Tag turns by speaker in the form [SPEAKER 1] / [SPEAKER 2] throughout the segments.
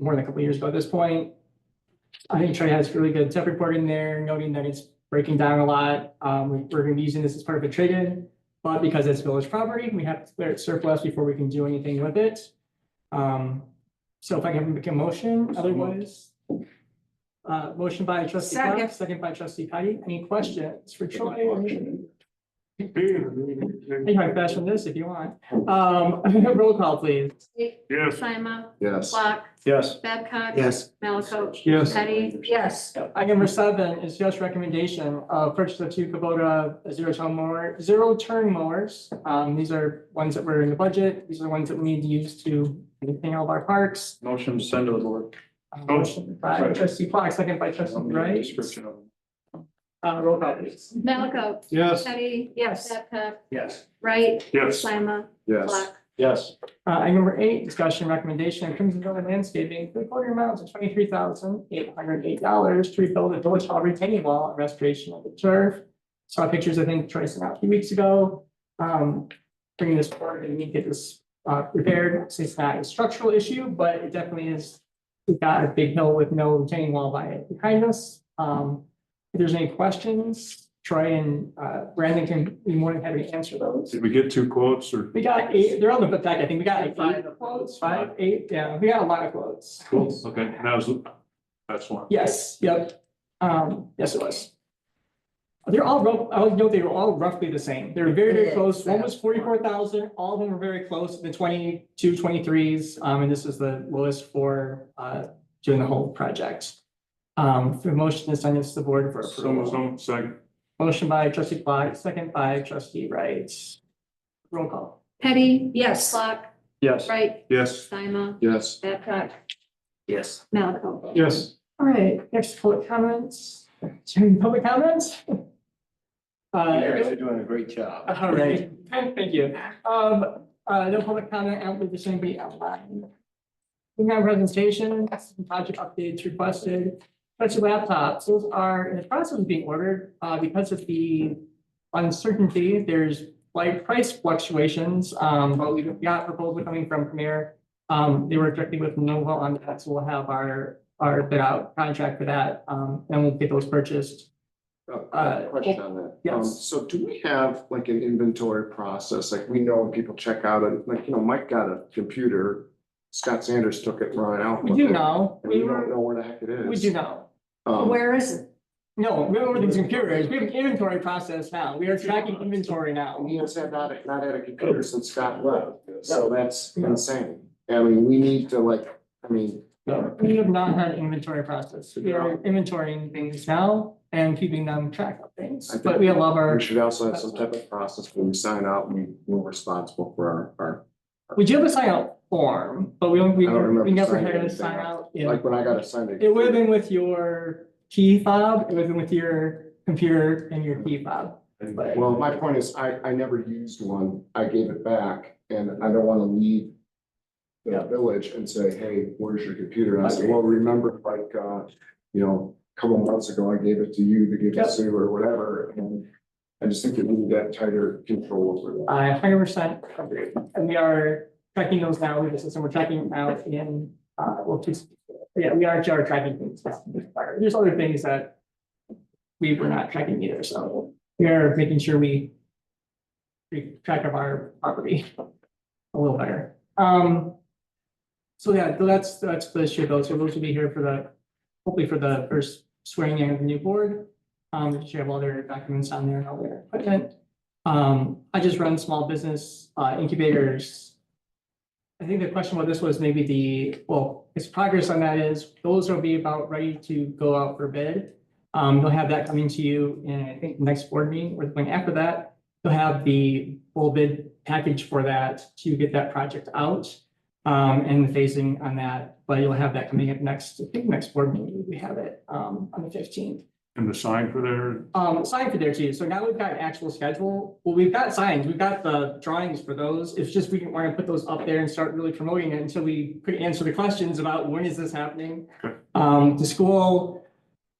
[SPEAKER 1] more than a couple of years ago at this point. I think Trey has really good tech report in there, noting that it's breaking down a lot. Um, we- we're gonna be using this as part of a trade-in. But because it's village property, we have to declare it surplus before we can do anything with it. Um, so if I can make a motion, otherwise. Uh, motion by trustee Clark,
[SPEAKER 2] Second.
[SPEAKER 1] second by trustee Patty. Any questions for Troy? You can
[SPEAKER 3] Yes.
[SPEAKER 1] fashion this if you want. Um, roll call, plees.
[SPEAKER 4] Sima,
[SPEAKER 3] Yes.
[SPEAKER 4] Block,
[SPEAKER 3] Yes.
[SPEAKER 4] Babcock.
[SPEAKER 3] Yes.
[SPEAKER 4] Maliko.
[SPEAKER 3] Yes.
[SPEAKER 4] Teddy.
[SPEAKER 2] Yes,
[SPEAKER 1] Item number seven is just recommendation of purchase of two Kubota zero turn mower, zero turn mowers. Um, these are ones that were in the budget. These are the ones that we need to use to maintain all of our parks.
[SPEAKER 3] Motion to send to the board.
[SPEAKER 1] Uh,
[SPEAKER 3] Oh.
[SPEAKER 1] Motion by
[SPEAKER 3] Right.
[SPEAKER 1] trustee Clark, second by trustee Wright.
[SPEAKER 3] Description of. them.
[SPEAKER 1] Uh, roll call, please.
[SPEAKER 4] Maliko.
[SPEAKER 3] Yes.
[SPEAKER 4] Teddy.
[SPEAKER 2] yes,
[SPEAKER 4] Babcock.
[SPEAKER 3] Yes.
[SPEAKER 4] Wright.
[SPEAKER 3] Yes.
[SPEAKER 4] Sima,
[SPEAKER 3] Yes.
[SPEAKER 4] Block.
[SPEAKER 3] Yes.
[SPEAKER 1] Uh, item number eight, discussion recommendation, of Crimson Valley Landscaping, three quarter amount of twenty-three thousand eight hundred eight dollars to rebuild the village hall retaining wall and restoration of the turf. Saw pictures, I think, Troy sent out a few weeks ago, um, bringing this forward and we need to get this, uh, repaired. Obviously, It's not a structural issue, but it definitely is. We've got a big hill with no retaining wall by it behind us. Um, if there's any questions, Troy and, uh, Brandon can, be more than happy to answer those.
[SPEAKER 3] Did we get two quotes or?
[SPEAKER 1] We got eight, they're on the book back, I think we got like eight quotes, five, eight, yeah, we got a lot of quotes.
[SPEAKER 3] Cool, okay, and that was, that's one.
[SPEAKER 1] Yes, yep, um, yes, it was. They're all, rough- I would note they were all roughly the same, they were very, very close, one was forty-four thousand, all of them were very close, the 22, 23s. um, and this is the lowest for, uh, doing the whole project. Um, for motion is on this the board for
[SPEAKER 3] So,
[SPEAKER 1] approval.
[SPEAKER 3] so, second.
[SPEAKER 1] Motion by trustee Clark, second by trustee Wright. Roll call.
[SPEAKER 4] Teddy.
[SPEAKER 2] yes.
[SPEAKER 4] Block.
[SPEAKER 3] Yes.
[SPEAKER 4] Wright.
[SPEAKER 3] Yes.
[SPEAKER 4] Sima,
[SPEAKER 3] Yes.
[SPEAKER 4] Babcock.
[SPEAKER 3] Yes.
[SPEAKER 4] Maliko.
[SPEAKER 3] Yes.
[SPEAKER 1] All right, next public comments, Any public comments. Uh,
[SPEAKER 3] doing a great job.
[SPEAKER 1] all right, thank you. Um, uh, no public comment, I don't believe there's anybody online. We have presentation, some project updates requested, bunch of laptops, those are in the process of being ordered, uh, because of the uncertainty, there's like price fluctuations, um, but we got proposal coming from Premier. Um, they were directly with Nova on that, so we'll have our, our bid out contract for that, um, and we'll get those purchased.
[SPEAKER 3] Oh,
[SPEAKER 1] Uh,
[SPEAKER 5] Question on that.
[SPEAKER 1] yes.
[SPEAKER 5] Um, So do we have like an inventory process? Like we know when people check out, and like, you know, Mike got a computer. Scott Sanders took it, ran out.
[SPEAKER 1] We
[SPEAKER 5] with
[SPEAKER 1] do
[SPEAKER 5] it,
[SPEAKER 1] know,
[SPEAKER 5] And we
[SPEAKER 1] we
[SPEAKER 5] don't
[SPEAKER 1] were,
[SPEAKER 5] know where the heck it is.
[SPEAKER 1] we do know.
[SPEAKER 5] Um,
[SPEAKER 2] Where is it?
[SPEAKER 1] No, we don't these computers, we have an inventory process now, we are tracking inventory now.
[SPEAKER 5] He has had not, not had a computer since Scott left, so that's insane. I mean, we need to like, I mean,
[SPEAKER 1] No, We have not had inventory process, we are inventorying things now and keeping them track of things, but we love our.
[SPEAKER 5] we should also have some type of process when we sign out, we, we're responsible for our, our,
[SPEAKER 1] We do have a sign out form, but we don't, we,
[SPEAKER 5] I don't remember
[SPEAKER 1] we never
[SPEAKER 5] signing
[SPEAKER 1] had a
[SPEAKER 5] anything
[SPEAKER 1] sign
[SPEAKER 5] out.
[SPEAKER 1] out. Yeah.
[SPEAKER 5] like when I got assigned.
[SPEAKER 1] It would have been with your key fob, it would have been with your computer and your key fob.
[SPEAKER 5] Well, my point is, I, I never used one, I gave it back, and I don't wanna leave
[SPEAKER 1] Yeah.
[SPEAKER 5] the village and say, hey, where's your computer? And I said, well, remember, like, uh, you know, a couple months ago, I gave it to you to give
[SPEAKER 1] Yep.
[SPEAKER 5] it to, or whatever, and I just think that we need that tighter control over that.
[SPEAKER 1] I hundred uh, percent agree, and we are tracking those now, we have a system, we're tracking them out in, uh, well, just, yeah, we are, are tracking things. now. There's other things that we were not tracking either, so we are making sure we we track of our property a little better. Um, so yeah, that's, that's the issue though, so those will be here for the, hopefully for the first swearing in of the new board. Um, should have all their documents on there and all their equipment. Um, I just run small business uh, incubators. I think the question about this was maybe the, well, its progress on that is, those will be about ready to go out for bid. Um, they'll have that coming to you in, I think, next board meeting or the one after that. You'll have the full bid package for that to get that project out. Um, and the phasing on that, but you'll have that coming up next, I think, next board meeting, we have it, um, on the fifteenth.
[SPEAKER 3] And the sign for there,
[SPEAKER 1] Um, sign for there too, so now we've got an actual schedule, well, we've got signs, we've got the drawings for those, it's just we didn't want to put those up there and start really promoting it until we could answer the questions about when is this happening?
[SPEAKER 3] Okay.
[SPEAKER 1] Um, the school,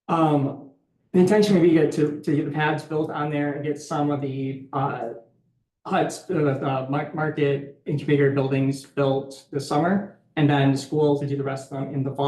[SPEAKER 1] um, the intention would be to, to to get the pads built on there and get some of the, uh, huts, uh, uh, mar- market incubator buildings built this summer, And then schools to do the rest of them in the fall.